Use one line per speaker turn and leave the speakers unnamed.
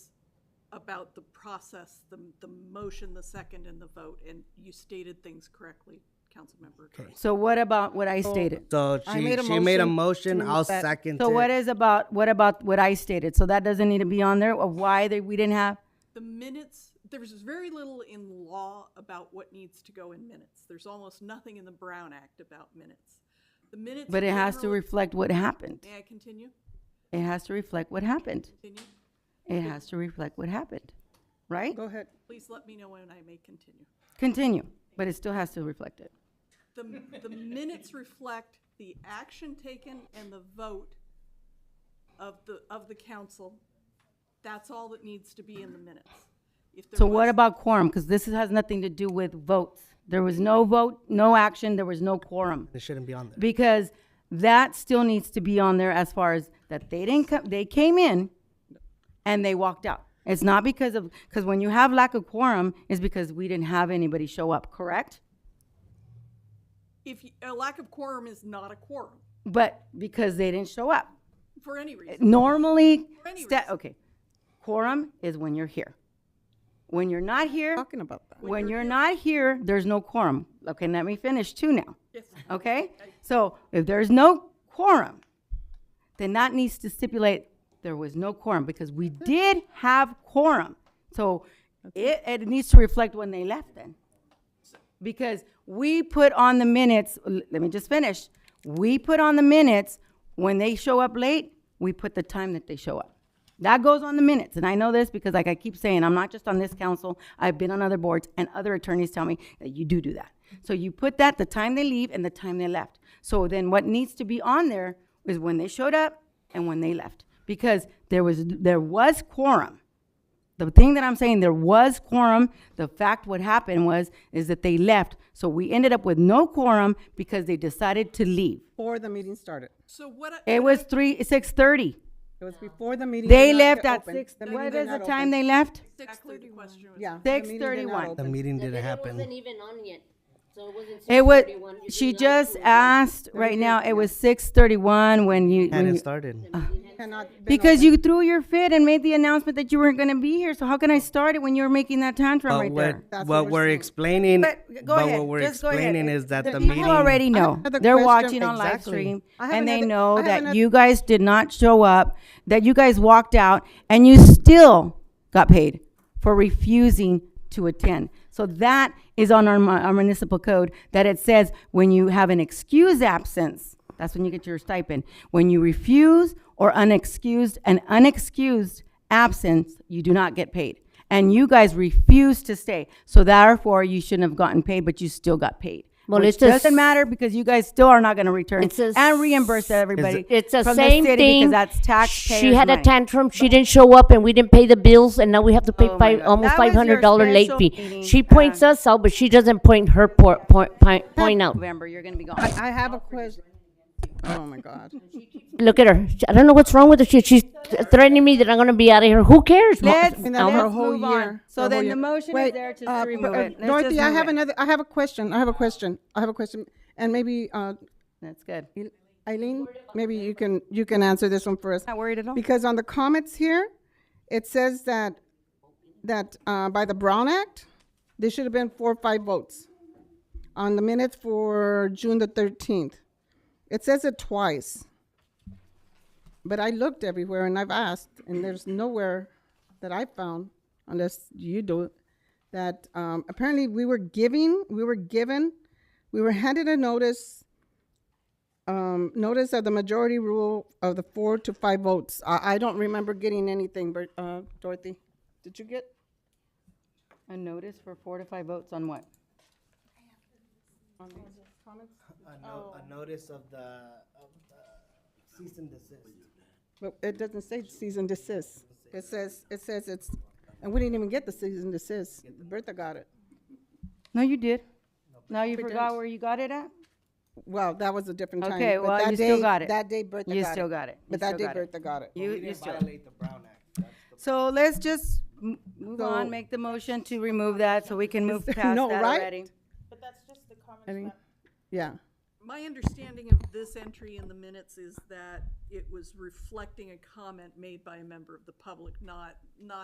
about the process, the, the motion, the second, and the vote, and you stated things correctly, Councilmember Attorney.
So what about what I stated?
So
I
she,
made a
she made a
motion
motion,
to
I'll
that-
second
So what
it.
is about, what about what I stated? So that doesn't need to be on there of why they, we didn't have?
The minutes, there's very little in law about what needs to go in minutes. There's almost nothing in the Brown Act about minutes. The minutes.
But it has to
generally-
reflect what happened.
May I continue?
It has to reflect what happened.
Continue?
It has to reflect what happened, right?
Go ahead.
Please let me know when I may continue.
Continue, but it still has to reflect it.
The, the minutes reflect the action taken and the vote of the, of the council. That's all that needs to be in the minutes. If there
So what
was-
about quorum? Because this has nothing to do with votes. There was no vote, no action, there was no quorum.
It shouldn't be on there.
Because that still needs to be on there as far as that they didn't come, they came in and they walked out. It's not because of, because when you have lack of quorum, it's because we didn't have anybody show up, correct?
If, you- a lack of quorum is not a quorum,
But because they didn't show up.
for any reason.
Normally,
For any
sta-
reason.
okay, quorum is when you're here. When you're not here,
Talking about that.
when you're not here, there's no quorum. Okay, let me finish too now.
Yes.
Okay? So if there's no quorum, then that needs to stipulate there was no quorum because we did have quorum. So it, it needs to reflect when they left then. Because we put on the minutes, l- let me just finish. We put on the minutes, when they show up late, we put the time that they show up. That goes on the minutes, and I know this because like I keep saying, I'm not just on this council, I've been on other boards, and other attorneys tell me that you do do that. So you put that, the time they leave and the time they left. So then what needs to be on there is when they showed up and when they left. Because there was, there was quorum. The thing that I'm saying, there was quorum. The fact what happened was, is that they left. So we ended up with no quorum because they decided to leave.
Before the meeting started.
So what? I-
It was three, six thirty.
It was before the meeting.
They
did not
left
get
at
open.
six,
The
what
meeting did
is the
not
time
open.
they left?
Exactly the question was.
Yeah.
Six
the meeting did not
thirty-one.
The
open.
meeting
The
didn't
dinner
happen.
wasn't even on yet, so it wasn't
It was,
6:31. You
she
did not
just
do it.
asked, right now, it was six thirty-one when you, when
Hadn't
you,
started.
Uh,
Cannot been
because you threw your fit and made the announcement that you weren't gonna be here, so how can I start it when you were making that tantrum
But
right
what,
there?
That's
what
what we're
we're
saying.
explaining, but
But go ahead,
what we're
just go ahead.
explaining is that the
People already
meeting,
know,
another
they're
question.
watching on live
Exactly.
stream,
I have
and they
another- I
know
have
that
another-
you guys did not show up, that you guys walked out, and you still got paid for refusing to attend. So that is on our mu- our municipal code, that it says when you have an excused absence, that's when you get your stipend. When you refuse or unexcused, an unexcused absence, you do not get paid. And you guys refused to stay, so therefore you shouldn't have gotten paid, but you still got paid.
Well,
Which
it's just-
doesn't matter because you guys still are not gonna return
It's a
and reimburse everybody.
It's the
from
same
city
thing.
Because that's taxpayers'
She had a
money.
tantrum. She didn't show up, and we didn't pay the bills, and now we have to pay
Oh my
five,
God.
almost
That was
five
your
hundred dollar late
special meeting,
fee. She
uh,
points us out, but she doesn't point her por- point point point oh. out.
November, you're gonna be gone.
I have a question. Oh, my God.
Look at her. She- I don't know what's wrong with her. She, she's threatening me that I'm gonna be out of here. Who cares? Ma-
Let's,
And that's her
let's
whole
move on.
year,
So
her whole
then the
year.
motion is
Wait,
there to-
uh,
to remove
but, uh,
it. Let's
Dorothy,
just
I
move
have
it.
another, I have a question. I have a question. I have a question. And maybe, uh,
That's good.
Eileen, maybe you can, you can answer this one for us.
Not worried at all.
Because on the comments here, it says that, that uh, by the Brown Act, there should have been four or five votes on the minutes for June the 13th. It says it twice. But I looked everywhere and I've asked, and there's nowhere that I found, unless you do it, that um, apparently we were giving, we were given, we were handed a notice um, notice of the majority rule of the four to five votes. I, I don't remember getting anything, but, uh, Dorothy, did you get?
A notice for four to five votes on what?
A notice of the cease and desist.
But it doesn't say cease and desist. It says, it says it's, and we didn't even get the cease and desist. Bertha got it.
No, you did. Now you forgot where you got it at?
Well, that was a different time.
Okay,
but
well,
that
you still
day-
got it.
That day Bertha got it.
You still got it. You
But that
still
day
got it.
Bertha got it.
You, you still.
Violate the Brown Act.
So let's just m- move on,
So-
make the motion to remove that so we can move past that
No, right?
already.
Yeah.
My understanding of this entry in the minutes is that it was reflecting a comment made by a member of the public, not, not